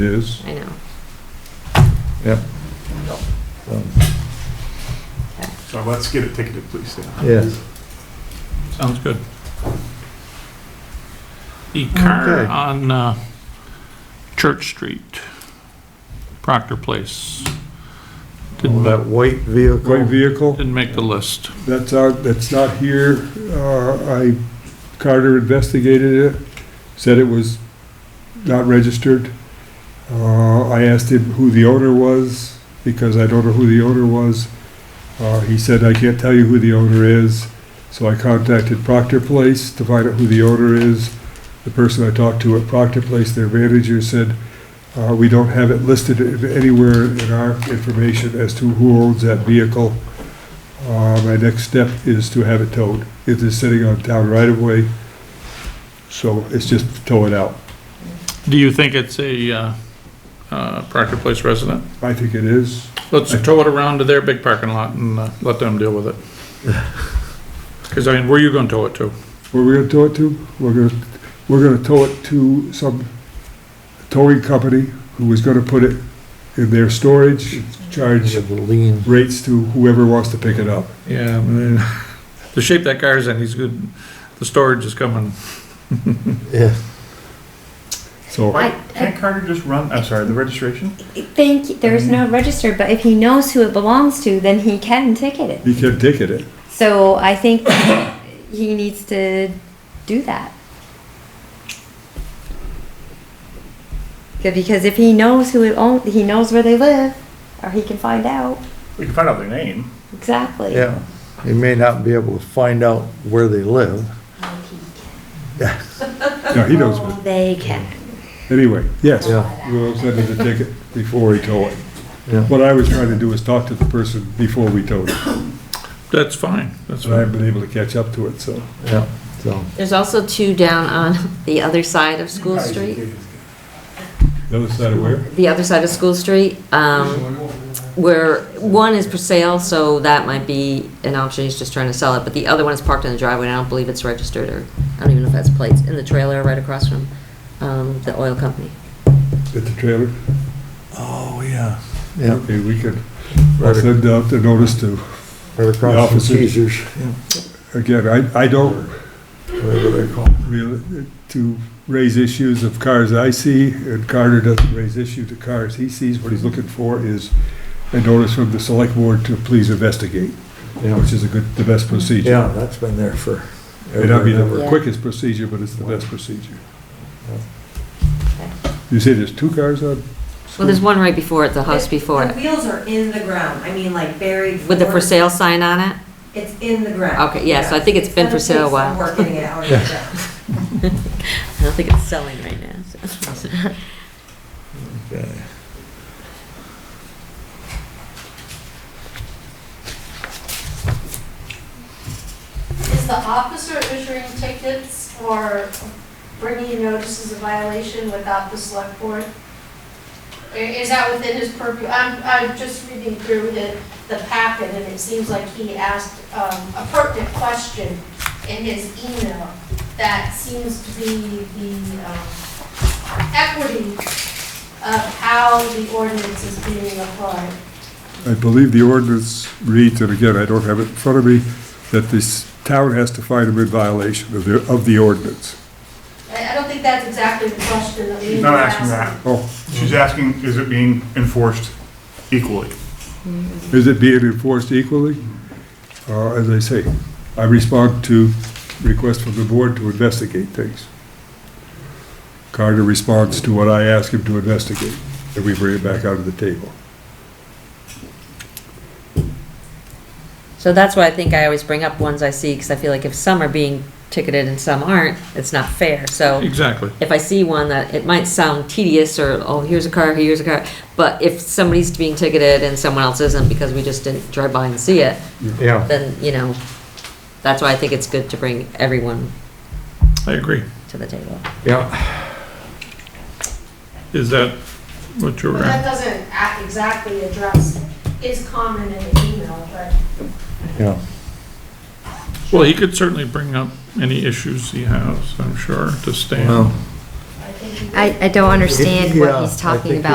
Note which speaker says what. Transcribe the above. Speaker 1: is,
Speaker 2: I know.
Speaker 1: yeah.
Speaker 2: Okay.
Speaker 3: So let's get it ticketed, please, Dan.
Speaker 1: Yes.
Speaker 4: Sounds good. The car
Speaker 1: Okay.
Speaker 4: on uh, Church Street, Proctor Place, didn't,
Speaker 1: That white vehicle. White vehicle,
Speaker 4: didn't make the list.
Speaker 1: that's out, that's not here. Uh, I, Carter investigated it, said it was not registered. Uh, I asked him who the owner was, because I don't know who the owner was. Uh, he said, I can't tell you who the owner is. So I contacted Proctor Place to find out who the owner is. The person I talked to at Proctor Place, their manager, said, uh, we don't have it listed anywhere in our information as to who owns that vehicle. Uh, my next step is to have it towed. It is sitting on town right of way, so it's just tow it out.
Speaker 4: Do you think it's a uh, uh, Proctor Place resident?
Speaker 1: I think it is.
Speaker 4: Let's tow it around to their big parking lot and uh, let them deal with it. Because I mean, where you gonna tow it to?
Speaker 1: Where we're gonna tow it to? We're gonna, we're gonna tow it to some towing company who was gonna put it in their storage, charge rates to whoever wants to pick it up.
Speaker 4: Yeah, I mean, the shape that car's in, he's good, the storage is coming.
Speaker 1: So,
Speaker 2: I,
Speaker 3: Can't Carter just run, I'm sorry, the registration? Mm-hmm.
Speaker 2: I think there's no register, but if he knows who it belongs to, then he can ticket it.
Speaker 1: he kept ticket it.
Speaker 2: So I think he needs to do that. Good, Because if he knows who it owns, he knows where they live, or he can find out
Speaker 3: We can find out their name.
Speaker 2: exactly.
Speaker 5: Yeah, you may not be able to find out where they live.
Speaker 1: Yeah, he knows.
Speaker 2: Oh, They can.
Speaker 1: Anyway, yes,
Speaker 5: Yeah.
Speaker 1: we'll send him the ticket before he tow it.
Speaker 5: Yeah.
Speaker 1: What I was trying to do is talk to the person before we towed it,
Speaker 4: That's fine, that's
Speaker 1: and I
Speaker 4: fine.
Speaker 1: haven't been able to catch up to it, so.
Speaker 5: Yeah, so,
Speaker 6: There's also two down on the other side of School Street,
Speaker 1: The other side of where?
Speaker 6: the other side of School Street, um, where one is for sale, so that might be an option, he's just trying to sell it, but the other one is parked in the driveway, and I don't believe it's registered, or, I don't even know if that's plates, in the trailer right across from, um, the oil company.
Speaker 1: At the trailer?
Speaker 3: Oh, yeah.
Speaker 5: yeah,
Speaker 1: Okay, we could I'll
Speaker 5: right ac-
Speaker 1: send out the notice to,
Speaker 5: right across from
Speaker 1: officer.
Speaker 5: Caesar's, yeah,
Speaker 1: again, I, I don't
Speaker 5: whatever they call it.
Speaker 1: really, to raise issues of cars I see, and Carter doesn't raise issue to cars he sees. What he's looking for is a notice from the select board to please investigate,
Speaker 5: Yeah,
Speaker 1: which is a good, the best procedure.
Speaker 5: Yeah, that's been there for.
Speaker 1: May not be
Speaker 5: ever.
Speaker 1: the
Speaker 6: Yeah.
Speaker 1: quickest procedure, but it's the best procedure.
Speaker 5: Yeah.
Speaker 1: You say there's two cars on?
Speaker 6: Well, there's one right before it, the house before
Speaker 7: The
Speaker 6: it,
Speaker 7: wheels are in the ground, I mean, like buried.
Speaker 6: with the for sale sign on it,
Speaker 7: It's in the ground.
Speaker 6: Okay, yeah, so I think it's been for sale a while.
Speaker 7: It's gonna take some work getting it out of the ground.
Speaker 6: I don't think it's selling right now, so.
Speaker 8: Is the officer issuing tickets or bringing notices of violation without the select board? I- Is that within his purview? I'm, I'm just reading through the, the packet, and it seems like he asked um, a pertinent question in his email that seems to be the um, equity of how the ordinance is being applied.
Speaker 1: I believe the ordinance reads, and again, I don't have it in front of me, that this town has to find them in violation of the, of the ordinance.
Speaker 8: I, I don't think that's exactly the question that we need
Speaker 3: She's
Speaker 8: to
Speaker 3: not asking that.
Speaker 8: ask.
Speaker 1: Oh,
Speaker 3: She's asking, is it being enforced equally?
Speaker 1: is it being enforced equally? Uh, as I say, I respond to requests from the board to investigate things. Carter responds to what I ask him to investigate, and we bring it back out of the table.
Speaker 6: So that's why I think I always bring up ones I see, because I feel like if some are being ticketed and some aren't, it's not fair, so.
Speaker 4: Exactly.
Speaker 6: if I see one that it might sound tedious or, oh, here's a car, here's a car, but if somebody's being ticketed and someone else isn't because we just didn't drive by and see it,
Speaker 5: Yeah,
Speaker 6: then, you know, that's why I think it's good to bring everyone
Speaker 4: I agree.
Speaker 6: to the table.
Speaker 5: yeah,
Speaker 4: Is that what you
Speaker 8: But
Speaker 4: were?
Speaker 8: that doesn't a- exactly address his comment in the email, but
Speaker 5: yeah,
Speaker 4: Well, he could certainly bring up any issues he has, I'm sure, to Stan.
Speaker 5: well,
Speaker 8: I think
Speaker 6: I, I don't understand what
Speaker 5: Yeah,
Speaker 6: he's
Speaker 5: I
Speaker 6: talking
Speaker 5: think
Speaker 6: about.